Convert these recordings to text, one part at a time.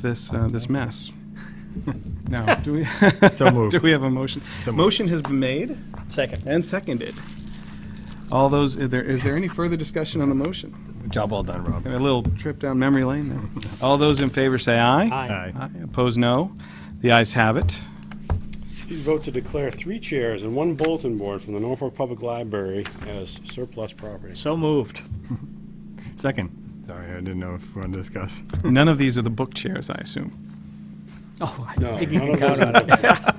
this, uh, this mess. Now, do we, So moved. do we have a motion? So moved. Motion has been made Second. and seconded. All those, is there, is there any further discussion on the motion? Job well done, Rob. Got A little trip down memory lane there. All those in favor say aye. Aye. Aye. Opposed, no. The ayes have it. You vote to declare three chairs and one bulletin board from the Norfolk Public Library as surplus property. So moved. Second. Sorry, I didn't know if we wanted to discuss. None of these are the book chairs, I assume. Oh, I No, think you none can of those count on are- it.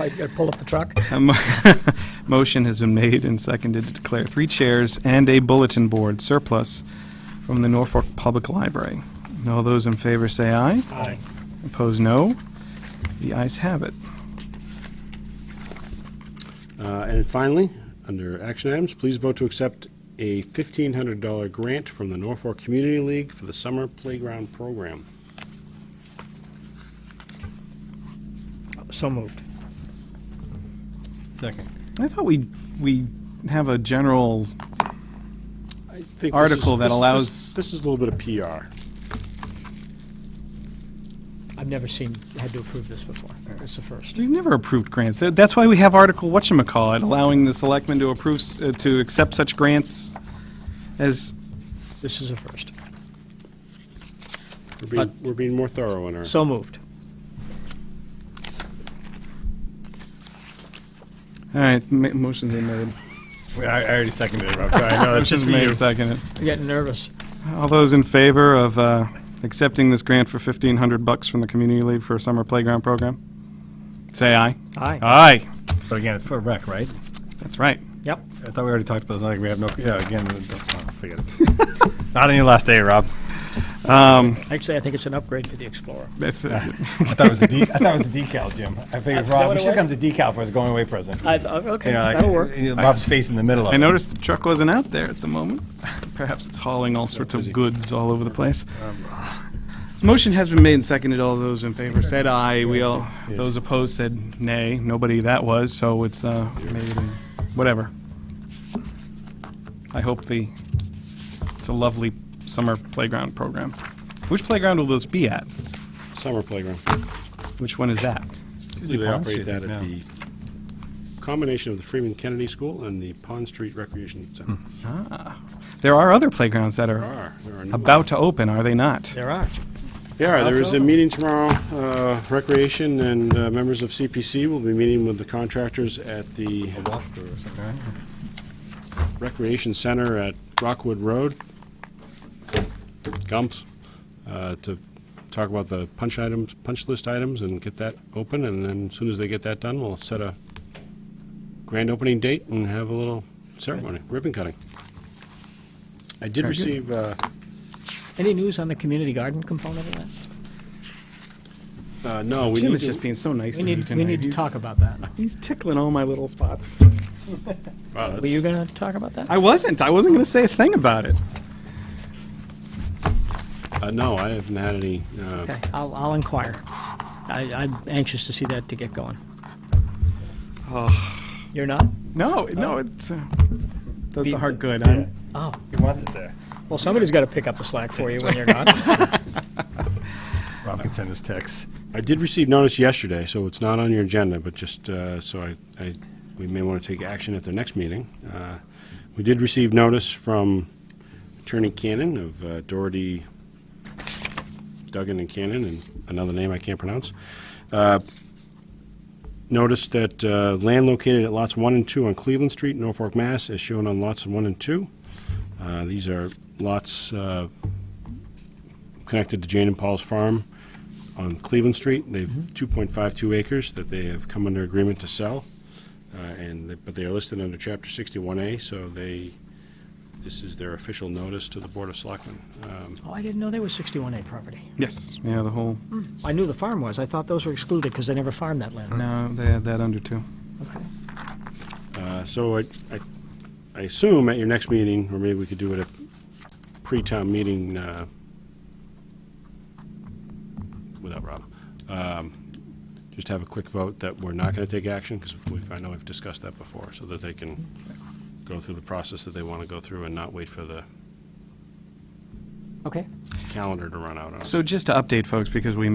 I gotta pull up the truck. A mo- Motion has been made and seconded to declare three chairs and a bulletin board surplus from the Norfolk Public Library. And All those in favor say aye. Aye. Opposed, no. The ayes have it. Uh, And finally, under action items, please vote to accept a $1,500 grant from the Norfolk Community League for the summer playground program. So moved. Second. I thought we, we have a general, I think this is- Article that this- this- allows- This is a little bit of PR. I've never seen, had to approve this before. It's the first. we've never approved grants. That- That's why we have Article, whatchamacallit, allowing the selectmen to approve, s- uh, to accept such grants as, This is a first. We're being, we're being more thorough in our, So moved. all right, ma- motion's been made. Wait, I, I already seconded it, Rob. Sorry, no, that's just Motion's for made, you. seconded. I'm getting nervous. All those in favor of uh, accepting this grant for 1,500 bucks from the community league for a summer playground program? Say aye. Aye. Aye. But again, it's for rec, right? That's right. Yep. I thought we already talked about this. Like we have no. Yeah, again, we don't- oh, forget it. Not on your last day, Rob. Actually, I think it's an upgrade for the Explorer. That's it. I thought it was a de- I thought it was a decal, Jim. I figured, that Rob, what we it should was? come to decal for his going away present. I, uh, okay, You know, like, that'll work. you know, Rob's face in the middle of I it. noticed the truck wasn't out there at the moment. Perhaps it's hauling all sorts of goods all over the place. Um, Motion has been made and seconded. All those in favor said aye. We all, those opposed said nay. Nobody that was, so it's uh, made and whatever. I hope the, it's a lovely summer playground program. Which playground will this be at? summer playground. Which one is that? They Pond operate Street, that at yeah. the combination of the Freeman Kennedy School and the Pond Street Recreation Center. Hmm. There are other playgrounds that are Are- there are new about to open, are they not? There are. Yeah, there is a meeting tomorrow. uh, Recreation and uh, members of CPC will be meeting with the contractors at the Walkthrough or something, right? Recreation Center at Rockwood Road, Gumps, uh, to talk about the punch items, punch list items and get that open. And then as soon as they get that done, we'll set a grand opening date and have a little ceremony, ribbon cutting. I did receive, uh, Any news on the community garden component of that? uh, no, we Jim need is just to, being so nice We to me need, tonight. we need to He's- talk about that. He's tickling all my little spots. wow, that's- Were you gonna talk about that? I wasn't. I wasn't going to say a thing about it. uh, no, I haven't had any, uh, Okay, I'll, I'll inquire. I, I'm anxious to see that to get going. Oh. You're not? No, no, it's uh, does the Oh. Beat heart the- good. I'm- Oh, He wants it there. well, somebody's gotta pick up the slack for you when you're not. Rob can send us texts. I did receive notice yesterday, so it's not on your agenda, but just, uh, so I, I, we may want to take action at the next meeting. Uh, We did receive notice from Attorney Cannon of uh, Doherty, Duggan and Cannon, and another name I can't pronounce. Uh, Notice that uh, land located at lots one and two on Cleveland Street, Norfolk, Mass, is shown on lots one and two. Uh, These are lots uh, connected to Jane and Paul's farm on Cleveland Street. They have 2.52 acres that they have come under agreement to sell, uh, and, they- but they are listed under Chapter 61A, so they, this is their official notice to the Board of Selectmen. Um, Oh, I didn't know they were 61A property. yes. Yeah, the whole. I knew the farm was. I thought those were excluded because they never farmed that land. No, they had that under too. Okay. uh, So I, I- I assume at your next meeting, or maybe we could do it at pre-town meeting uh, without Rob, um, just have a quick vote that we're not going to take action, because I know we've discussed that before, so that they can go through the process that they want to go through and not wait for the Okay. calendar to run out on. So just to update folks, because we